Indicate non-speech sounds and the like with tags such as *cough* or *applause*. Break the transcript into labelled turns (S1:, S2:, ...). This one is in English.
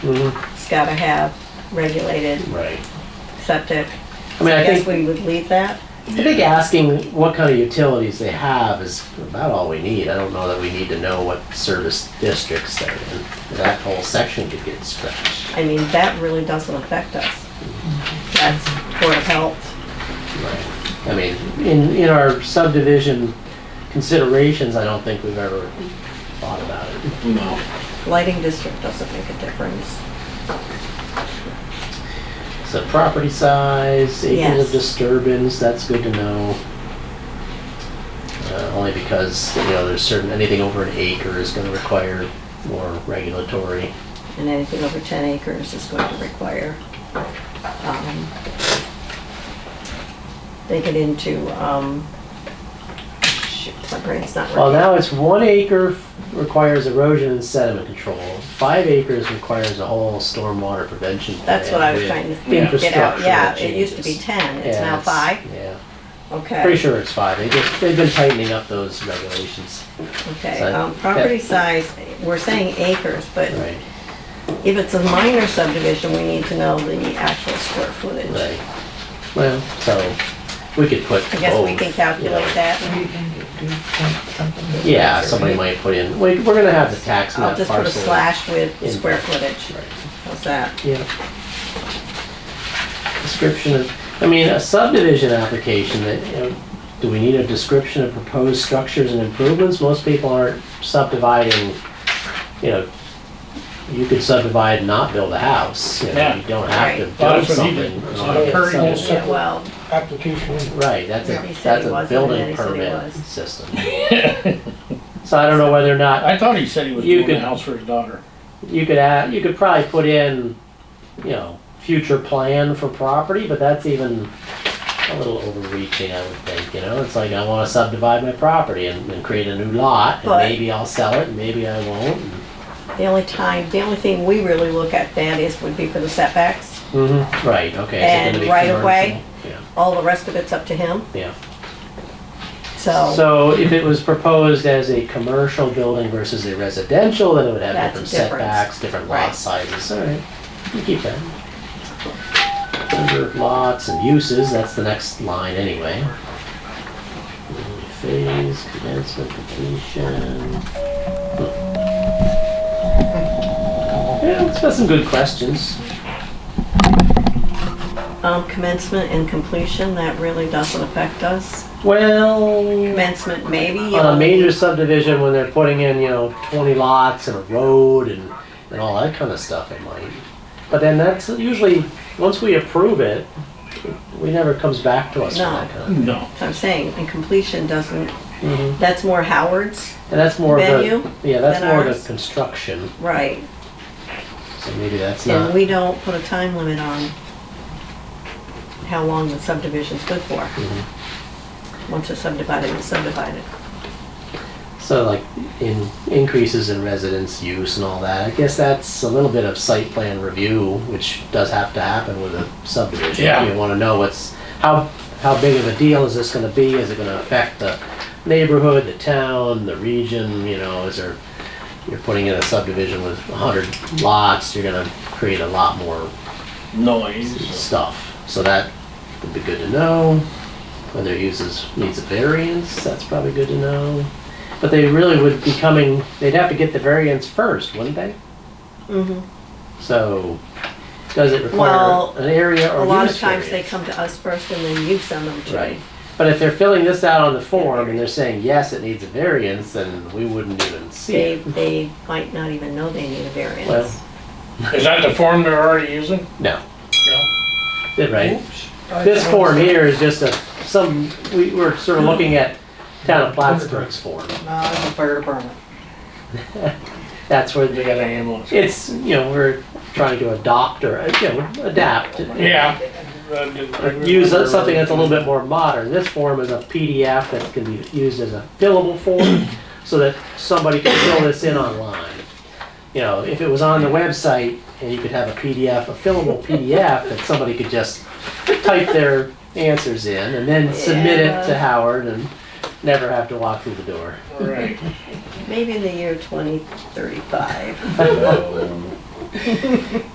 S1: It's gotta have regulated
S2: Right.
S1: septic.
S2: I mean,
S1: So
S2: I
S1: guess
S2: think,
S1: we would leave that.
S2: I think asking what kind of utilities they have is about all we need. I don't know that we need to know what service districts they're in. That whole section could get scratched.
S1: I mean, that really doesn't affect us. That's Board of Health.
S2: Right. I mean, in, in our subdivision considerations, I don't think we've ever thought about it.
S3: No.
S1: Lighting district doesn't make a difference.
S2: So property size, acres
S1: Yes.
S2: of disturbance, that's good to know. Uh, only because, you know, there's certain, anything over an acre is gonna require more regulatory.
S1: And anything over 10 acres is going to require, um, they get into, um, shoot, my brain's not
S2: Well,
S1: working.
S2: now it's one acre requires erosion and sediment control. Five acres requires a whole stormwater prevention plan.
S1: That's what I was
S2: with
S1: trying to get out.
S2: infrastructural
S1: Yeah, it used to be
S2: changes.
S1: 10, it's
S2: Yeah,
S1: now five,
S2: Yeah, pretty
S1: okay,
S2: sure it's five. They just, they've been tightening up those regulations,
S1: okay.
S2: so-
S1: Um, Property size, we're saying acres, but
S2: right,
S1: if it's a minor subdivision, we need to know the actual square footage.
S2: right. Well, so we could put
S1: I guess we
S2: both,
S1: can
S2: you know.
S1: calculate that.
S3: You can do something.
S2: Yeah, somebody might put in, we, we're gonna have the tax
S1: I'll
S2: map
S1: just put a
S2: parcel.
S1: slash with
S2: in-
S1: square footage.
S2: Right.
S1: How's that?
S2: Yeah. Description of, I mean, a subdivision application that, you know, do we need a description of proposed structures and improvements? Most people aren't subdividing, you know, you could subdivide and not build a house, you know,
S4: Yeah.
S2: you don't have to
S1: Right.
S2: build
S4: That's what he
S2: something.
S4: did.
S2: in
S4: It's
S2: order to
S4: not
S2: get
S4: a curtain.
S2: subdivided.
S1: Yeah, well,
S4: application.
S2: Right, that's
S1: Yeah. He
S2: a,
S1: said
S2: that's
S1: he wasn't,
S2: a
S1: and
S2: building
S1: he said he
S2: permit
S1: was.
S2: system. *laughs* So I don't know whether or not
S4: I thought he said he was
S2: You
S4: doing the
S2: could-
S4: house for his daughter.
S2: You could add, you could probably put in, you know, future plan for property, but that's even a little overreaching, I would think, you know? It's like, I wanna subdivide my property and, and create a new lot, and
S1: But-
S2: maybe I'll sell it, and maybe I won't. and-
S1: the only time, the only thing we really look at that is, would be for the setbacks.
S2: Right, okay. is it
S1: Mm-hmm. And
S2: gonna be
S1: right of way?
S2: commercial?
S1: All the rest of it's up to him,
S2: Yeah, yeah.
S1: so
S2: So if it was proposed as a commercial building versus a residential, then it would have
S1: That's
S2: different
S1: a difference.
S2: setbacks, different lot
S1: Right.
S2: sizes, alright, you keep that. Number of lots and uses, that's the next line anyway. Phase, commencement, completion. Yeah, it's got some good questions.
S1: um, commencement and completion, that really doesn't affect us.
S2: Well,
S1: Commencement, maybe. uh, you
S2: on
S1: only-
S2: a Uh, major subdivision when they're putting in, you know, twenty lots and a road and, and all that kind of stuff, it might. But then that's usually, once we approve it, we never comes back to us for that kind
S4: No.
S1: that's what I'm saying, and completion doesn't,
S2: of. Mhm.
S1: that's more Howard's,
S2: And that's more of
S1: Venue
S2: the, yeah, that's
S1: than
S2: more of
S1: ours.
S2: the construction,
S1: right?
S2: so maybe that's
S1: And
S2: not,
S1: we don't put a time limit on how long the subdivision's good for.
S2: Mm-hmm.
S1: Once it's subdivided, it's subdivided.
S2: so like in, increases in residence use and all that. I guess that's a little bit of site plan review, which does have to happen with a subdivision.
S4: Yeah.
S2: You wanna know what's, how, how big of a deal is this gonna be? Is it gonna affect the neighborhood, the town, the region, you know, is there, you're putting in a subdivision with hundred lots, you're gonna create a lot more
S4: Noise.
S2: stuff. So that would be good to know. Whether uses needs a variance, that's probably good to know. But they really would be coming, they'd have to get the variance first, wouldn't they?
S3: Mm-hmm.
S1: Mhm.
S2: So, does it require
S1: Well,
S2: an area
S1: A
S2: or
S1: lot of
S2: use
S1: times they
S2: variance?
S1: come to us first and then you send them to.
S2: Right. But if they're filling this out on the form and they're saying, yes, it needs a variance, then we wouldn't even see
S1: They,
S2: it.
S1: they might not even know they need a
S2: Well,
S1: variance.
S4: Is that the form they're already using?
S2: no,
S4: No.
S2: Did right?
S3: Oops.
S2: This form here is just a, some, we, we're sort of looking at town of Plattsburgh's form.
S3: No, it's a fire department.
S2: That's where
S4: They
S2: the
S4: got an ambulance.
S2: it's you know we're trying to adopt or you know adapt
S4: Yeah.
S2: use something that's a little bit more modern this form is a pdf that can be used as a fillable form so that somebody can fill this in online you know if it was on the website and you could have a pdf a fillable pdf that somebody could just type their answers in and then submit it to
S1: Yeah.
S2: howard and never have to walk through the door *laughs*
S4: Right. *laughs*
S1: Maybe in the year twenty thirty-five.